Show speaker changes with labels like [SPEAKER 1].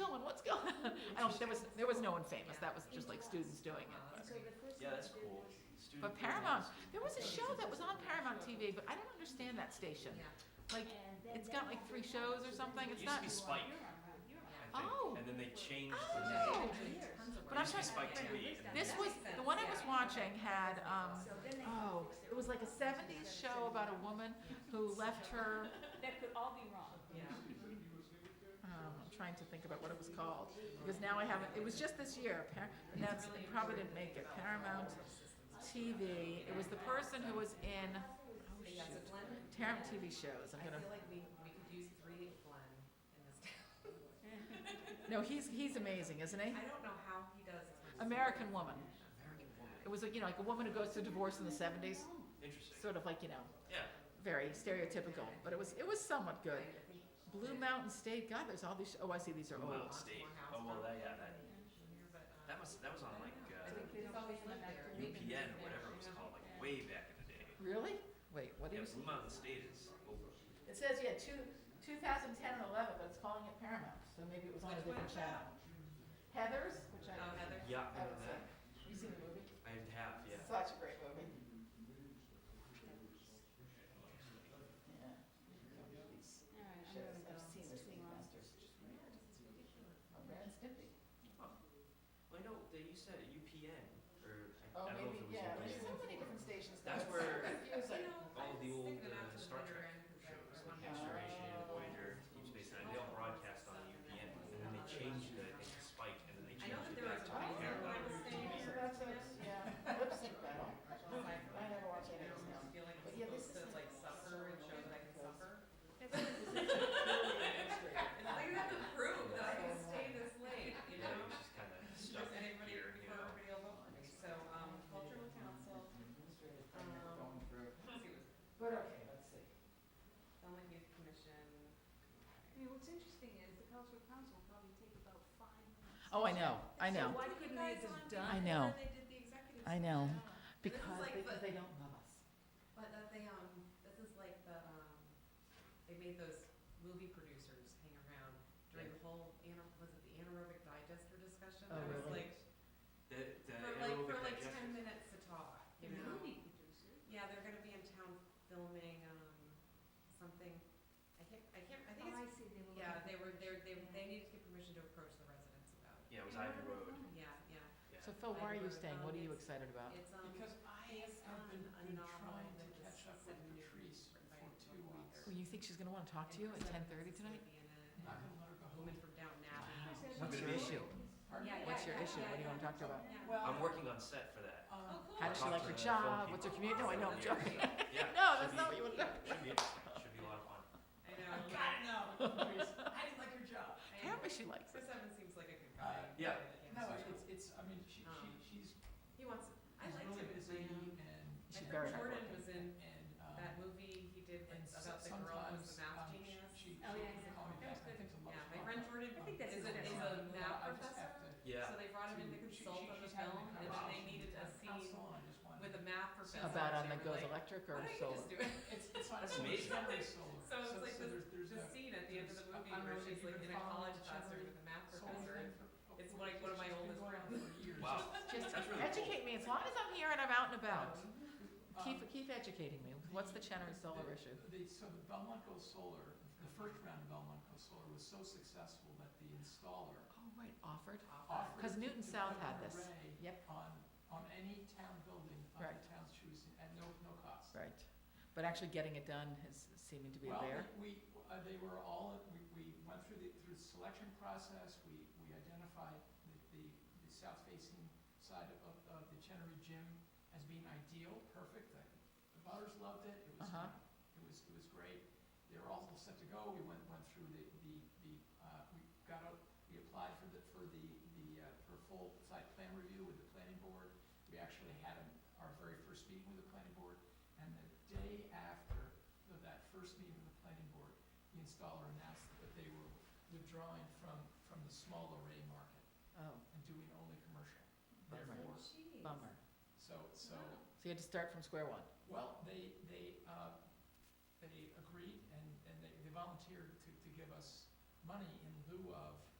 [SPEAKER 1] what's going on? I don't, there was, there was no one famous, that was just like students doing it.
[SPEAKER 2] Uh,
[SPEAKER 1] but-
[SPEAKER 3] So the first
[SPEAKER 2] Yeah,
[SPEAKER 3] one
[SPEAKER 2] that's
[SPEAKER 3] did
[SPEAKER 2] cool.
[SPEAKER 3] was-
[SPEAKER 2] Student
[SPEAKER 1] But
[SPEAKER 2] doing
[SPEAKER 1] Paramount,
[SPEAKER 2] that.
[SPEAKER 1] there was a show that was on Paramount TV, but I don't understand that station.
[SPEAKER 3] Yeah.
[SPEAKER 1] Like,
[SPEAKER 3] and then
[SPEAKER 1] it's
[SPEAKER 3] they
[SPEAKER 1] got like
[SPEAKER 3] had
[SPEAKER 1] three
[SPEAKER 3] the
[SPEAKER 1] shows
[SPEAKER 3] one
[SPEAKER 1] or
[SPEAKER 3] that
[SPEAKER 1] something,
[SPEAKER 3] you
[SPEAKER 1] it's
[SPEAKER 2] It
[SPEAKER 1] not,
[SPEAKER 2] used to be
[SPEAKER 3] were on,
[SPEAKER 2] Spike.
[SPEAKER 3] you were on, you were on.
[SPEAKER 2] I think.
[SPEAKER 1] Oh.
[SPEAKER 2] And then they changed
[SPEAKER 1] Oh.
[SPEAKER 2] the
[SPEAKER 1] Yeah.
[SPEAKER 2] name.
[SPEAKER 1] Oh. But I'm
[SPEAKER 2] It used to be
[SPEAKER 1] trying-
[SPEAKER 2] Spike TV. and
[SPEAKER 1] this
[SPEAKER 2] then-
[SPEAKER 1] was, the one I was watching had, um,
[SPEAKER 3] So then they had to
[SPEAKER 1] oh,
[SPEAKER 3] fix their
[SPEAKER 1] it was like a
[SPEAKER 3] own
[SPEAKER 1] seventies show about a woman who left her,
[SPEAKER 3] That could all be wrong.
[SPEAKER 1] um, I'm trying to think about what it was called. Because now I haven't, it was just this year, Par- and that's, it probably didn't make it, Paramount TV, it was the person who was in, oh shoot, Paramount TV shows, I'm
[SPEAKER 4] I
[SPEAKER 1] gonna.
[SPEAKER 4] feel like we, we could use three of Glenn in this town.
[SPEAKER 1] No, he's, he's amazing, isn't he?
[SPEAKER 4] I don't know how he does as much as we
[SPEAKER 1] American Woman.
[SPEAKER 2] American
[SPEAKER 1] It
[SPEAKER 2] Woman.
[SPEAKER 1] was, like, you know, like a woman who goes through divorce in the seventies,
[SPEAKER 2] Interesting.
[SPEAKER 1] sort of like, you know,
[SPEAKER 2] Yeah.
[SPEAKER 1] very stereotypical, but it was, it was somewhat good. Blue Mountain State, God, there's all these, oh, I see, these are
[SPEAKER 2] Blue
[SPEAKER 1] old.
[SPEAKER 2] Mountain State. Oh, well, that, yeah, that, that was, that was on like,
[SPEAKER 4] I
[SPEAKER 2] uh,
[SPEAKER 4] think they just always went back to Lincoln
[SPEAKER 2] UPN or
[SPEAKER 4] Center,
[SPEAKER 2] whatever it was
[SPEAKER 4] you know?
[SPEAKER 2] called, like way back in the day.
[SPEAKER 1] Really? Wait, what
[SPEAKER 2] Yeah, Blue Mountain State is over.
[SPEAKER 1] It says, yeah, two, two thousand ten and eleven, but it's calling it Paramount, so maybe it was on a
[SPEAKER 4] Which one
[SPEAKER 1] different
[SPEAKER 4] is
[SPEAKER 1] channel. Heathers, which I,
[SPEAKER 4] Oh, Heather.
[SPEAKER 2] Yeah,
[SPEAKER 1] I
[SPEAKER 2] I know
[SPEAKER 1] would say,
[SPEAKER 2] that.
[SPEAKER 1] you seen the movie?
[SPEAKER 2] I have, yeah.
[SPEAKER 1] Such a great movie. Yeah. Shows, I've seen the Speedmasters. Oh, Brad Stimpy.
[SPEAKER 2] Well, I know they used to have UPN or I,
[SPEAKER 1] Oh,
[SPEAKER 2] I don't know if
[SPEAKER 1] maybe, yeah,
[SPEAKER 2] it was
[SPEAKER 1] there's
[SPEAKER 2] UPN.
[SPEAKER 1] so many different stations now,
[SPEAKER 2] That's
[SPEAKER 1] it's so
[SPEAKER 2] where-
[SPEAKER 1] confusing.
[SPEAKER 2] All the old uh, Star Trek shows like Next Generation, Voyager, Deep Space Nine, they all broadcast on UPN, and then they changed the into Spike, and then they
[SPEAKER 4] I know
[SPEAKER 2] changed
[SPEAKER 4] that
[SPEAKER 2] it
[SPEAKER 4] there was
[SPEAKER 2] back to
[SPEAKER 4] a
[SPEAKER 1] one
[SPEAKER 2] Paramount.
[SPEAKER 4] that was
[SPEAKER 2] TV.
[SPEAKER 4] saying-
[SPEAKER 1] So that's a, yeah, lip sync battle, I never watch any of this now. But yeah, this is
[SPEAKER 4] like suffer and show that I can suffer.
[SPEAKER 1] It's
[SPEAKER 4] It's like you have to prove that I can
[SPEAKER 1] Yeah.
[SPEAKER 4] stay this late, you
[SPEAKER 2] Yeah,
[SPEAKER 4] know?
[SPEAKER 2] it was just kind of stuck
[SPEAKER 4] Does anybody
[SPEAKER 2] here, you
[SPEAKER 4] prefer
[SPEAKER 2] know.
[SPEAKER 4] everybody alone? So, um, cultural council, um, let's see what's
[SPEAKER 1] But okay, let's see.
[SPEAKER 4] Belmont Youth Commission.
[SPEAKER 3] I mean, what's interesting is the cultural council will probably take about five minutes.
[SPEAKER 1] Oh, I know, I know,
[SPEAKER 3] So why couldn't they have just done?
[SPEAKER 1] I know.
[SPEAKER 3] They did the executive.
[SPEAKER 1] I know.
[SPEAKER 3] session.
[SPEAKER 4] This is
[SPEAKER 1] because,
[SPEAKER 4] like
[SPEAKER 1] because
[SPEAKER 4] the-
[SPEAKER 1] they don't love us.
[SPEAKER 4] But that they, um, this is like the, um, they made those movie producers hang around during the whole ana was it the anaerobic digester discussion?
[SPEAKER 1] Oh,
[SPEAKER 4] I was
[SPEAKER 1] really?
[SPEAKER 4] like,
[SPEAKER 2] The, the
[SPEAKER 4] for like, for like
[SPEAKER 2] aerobic
[SPEAKER 4] ten
[SPEAKER 2] digestion.
[SPEAKER 4] minutes to talk, you
[SPEAKER 3] You
[SPEAKER 4] know?
[SPEAKER 3] know, movie producers.
[SPEAKER 4] Yeah, they're gonna be in town filming, um, something, I can't, I can't, I think
[SPEAKER 3] Oh, I
[SPEAKER 4] it's,
[SPEAKER 3] see, they were.
[SPEAKER 4] yeah, they
[SPEAKER 3] looking-
[SPEAKER 4] were, they, they, they needed to get permission to approach the residents about it.
[SPEAKER 2] Yeah, it was Ivy Road.
[SPEAKER 4] Yeah, yeah,
[SPEAKER 2] Yeah.
[SPEAKER 1] So Phil, why are you staying, what are you
[SPEAKER 4] Um, it's-
[SPEAKER 1] excited
[SPEAKER 2] Oh.
[SPEAKER 1] about?
[SPEAKER 4] it's, um,
[SPEAKER 5] Because I
[SPEAKER 4] based
[SPEAKER 5] have
[SPEAKER 4] on
[SPEAKER 5] been,
[SPEAKER 4] a
[SPEAKER 5] been
[SPEAKER 4] novel
[SPEAKER 5] trying to
[SPEAKER 4] that was
[SPEAKER 5] catch up with
[SPEAKER 4] set in
[SPEAKER 5] Patrice
[SPEAKER 4] Newport by
[SPEAKER 5] for two
[SPEAKER 4] Tom
[SPEAKER 5] weeks.
[SPEAKER 4] Weathers.
[SPEAKER 1] Well, you think she's gonna wanna talk to you at ten thirty tonight?
[SPEAKER 5] Not gonna let her go
[SPEAKER 4] A
[SPEAKER 5] home.
[SPEAKER 4] woman from Downton Abbey.
[SPEAKER 1] What's your issue?
[SPEAKER 5] Pardon?
[SPEAKER 4] Yeah,
[SPEAKER 1] What's your
[SPEAKER 4] yeah,
[SPEAKER 1] issue? What do you wanna talk to about?
[SPEAKER 4] Yeah.
[SPEAKER 5] Well,
[SPEAKER 2] I'm working on set for that.
[SPEAKER 5] um,
[SPEAKER 4] Oh, cool.
[SPEAKER 1] uh, How does she
[SPEAKER 2] Talk
[SPEAKER 1] like
[SPEAKER 2] to
[SPEAKER 1] her
[SPEAKER 2] the
[SPEAKER 1] job?
[SPEAKER 2] film
[SPEAKER 1] What's her
[SPEAKER 2] people.
[SPEAKER 1] community? No, I know, I'm
[SPEAKER 2] Yeah.
[SPEAKER 1] joking.
[SPEAKER 2] Yeah.
[SPEAKER 1] No,
[SPEAKER 2] should
[SPEAKER 1] that's not
[SPEAKER 2] be-
[SPEAKER 1] what you wanna talk
[SPEAKER 2] Should be interesting. Should be a lot of fun.
[SPEAKER 4] I know.
[SPEAKER 5] God, no, Patrice, I didn't like her job.
[SPEAKER 4] I know.
[SPEAKER 1] Apparently she likes it.
[SPEAKER 4] Chris Evans seems like a good
[SPEAKER 5] Uh,
[SPEAKER 4] guy.
[SPEAKER 2] yeah.
[SPEAKER 5] No, it's, it's, I mean, she, she, she's,
[SPEAKER 4] He wants, Um, I
[SPEAKER 5] she's
[SPEAKER 4] liked
[SPEAKER 5] really
[SPEAKER 4] him. in
[SPEAKER 5] busy
[SPEAKER 4] my, um,
[SPEAKER 5] and,
[SPEAKER 4] I
[SPEAKER 1] She's
[SPEAKER 4] thought
[SPEAKER 1] very
[SPEAKER 4] Jordan
[SPEAKER 1] hardworking.
[SPEAKER 4] was in
[SPEAKER 5] and, um,
[SPEAKER 4] that movie he did
[SPEAKER 5] and
[SPEAKER 4] with-
[SPEAKER 5] so-
[SPEAKER 4] about the
[SPEAKER 5] sometimes,
[SPEAKER 4] girl who was the math
[SPEAKER 5] um,
[SPEAKER 4] genius.
[SPEAKER 5] she, she
[SPEAKER 3] Oh, yeah,
[SPEAKER 5] would
[SPEAKER 3] yeah.
[SPEAKER 5] call me
[SPEAKER 4] That
[SPEAKER 5] back,
[SPEAKER 4] was
[SPEAKER 5] I
[SPEAKER 4] good.
[SPEAKER 5] think to lunch.
[SPEAKER 4] Yeah, my friend Jordan,
[SPEAKER 5] Um,
[SPEAKER 3] I think that's
[SPEAKER 4] is a,
[SPEAKER 3] his
[SPEAKER 4] is a
[SPEAKER 3] name.
[SPEAKER 4] math
[SPEAKER 5] I just
[SPEAKER 4] professor.
[SPEAKER 5] have to.
[SPEAKER 2] Yeah.
[SPEAKER 4] So they brought him in to
[SPEAKER 5] to- she-
[SPEAKER 4] consult on the
[SPEAKER 5] she's
[SPEAKER 4] film,
[SPEAKER 5] having a
[SPEAKER 4] and then they
[SPEAKER 5] conversation
[SPEAKER 4] needed a
[SPEAKER 5] with
[SPEAKER 4] scene
[SPEAKER 5] counsel, and I just wanted-
[SPEAKER 4] with a math professor.
[SPEAKER 1] About on
[SPEAKER 4] and
[SPEAKER 1] the
[SPEAKER 4] they were
[SPEAKER 1] goes
[SPEAKER 4] like,
[SPEAKER 1] electric
[SPEAKER 4] Why
[SPEAKER 1] or
[SPEAKER 4] don't you
[SPEAKER 1] solar?
[SPEAKER 4] just do it?
[SPEAKER 5] It's, it's not
[SPEAKER 2] That's
[SPEAKER 5] solar,
[SPEAKER 2] amazing.
[SPEAKER 5] it's solar.
[SPEAKER 4] So it's like
[SPEAKER 5] so
[SPEAKER 4] this-
[SPEAKER 5] there's, there's
[SPEAKER 4] The
[SPEAKER 5] a-
[SPEAKER 4] scene at the end of the
[SPEAKER 5] there's-
[SPEAKER 4] movie
[SPEAKER 5] I don't
[SPEAKER 4] where
[SPEAKER 5] know if
[SPEAKER 4] she's
[SPEAKER 5] you
[SPEAKER 4] like
[SPEAKER 5] can
[SPEAKER 4] in a
[SPEAKER 5] follow
[SPEAKER 4] college
[SPEAKER 5] the
[SPEAKER 4] classroom
[SPEAKER 5] generally
[SPEAKER 4] with a math
[SPEAKER 5] solar
[SPEAKER 4] professor.
[SPEAKER 5] thing
[SPEAKER 4] and
[SPEAKER 5] for-
[SPEAKER 4] it's
[SPEAKER 5] for
[SPEAKER 4] like one of my
[SPEAKER 5] years. It's
[SPEAKER 4] oldest
[SPEAKER 5] been going on
[SPEAKER 4] friends.
[SPEAKER 5] for years.
[SPEAKER 2] Wow.
[SPEAKER 1] Just
[SPEAKER 2] That's really cool.
[SPEAKER 1] educate me, as long as I'm here and I'm out and about,
[SPEAKER 4] um,
[SPEAKER 1] keep,
[SPEAKER 5] Um,
[SPEAKER 1] keep educating me. What's the Chenery Solar issue?
[SPEAKER 5] The, Um, so the Belmont Goes Solar, the first round of Belmont Goes Solar was so successful that the installer
[SPEAKER 1] Oh, right, offered.
[SPEAKER 5] offered.
[SPEAKER 1] Because Newton
[SPEAKER 5] to
[SPEAKER 1] South
[SPEAKER 5] put
[SPEAKER 1] had
[SPEAKER 5] an
[SPEAKER 1] this.
[SPEAKER 5] array
[SPEAKER 1] Yep.
[SPEAKER 5] On, on any town building of
[SPEAKER 1] Right.
[SPEAKER 5] the town's choosing, at no, no cost.
[SPEAKER 1] Right. But actually getting it done is seeming to be a bear.
[SPEAKER 5] Well, we, we- uh, they were all, we, we went through the, through the selection process, we, we identified the, the, the south facing side of, of- of the Chenery Gym as being ideal, perfect, I- the butters loved it, it was,
[SPEAKER 1] Uh-huh.
[SPEAKER 5] it was, it was great. They were all set to go, we went, went through the, the, the, uh, we got out, we applied for the, for the, the, uh, for full site plan review with the planning board. We actually had an- our very first meeting with the planning board, and the day after, of that first meeting with the planning board, the installer announced that they were withdrawing from, from the small array market
[SPEAKER 1] Oh,
[SPEAKER 5] and doing only commercial.
[SPEAKER 1] Bummer.
[SPEAKER 5] Therefore,
[SPEAKER 3] Jeez.
[SPEAKER 1] bummer.
[SPEAKER 5] so,
[SPEAKER 1] So
[SPEAKER 5] so,
[SPEAKER 1] you had to start from square one.
[SPEAKER 5] well, they, they, uh, they agreed and, and they, they volunteered to, to give us money in lieu of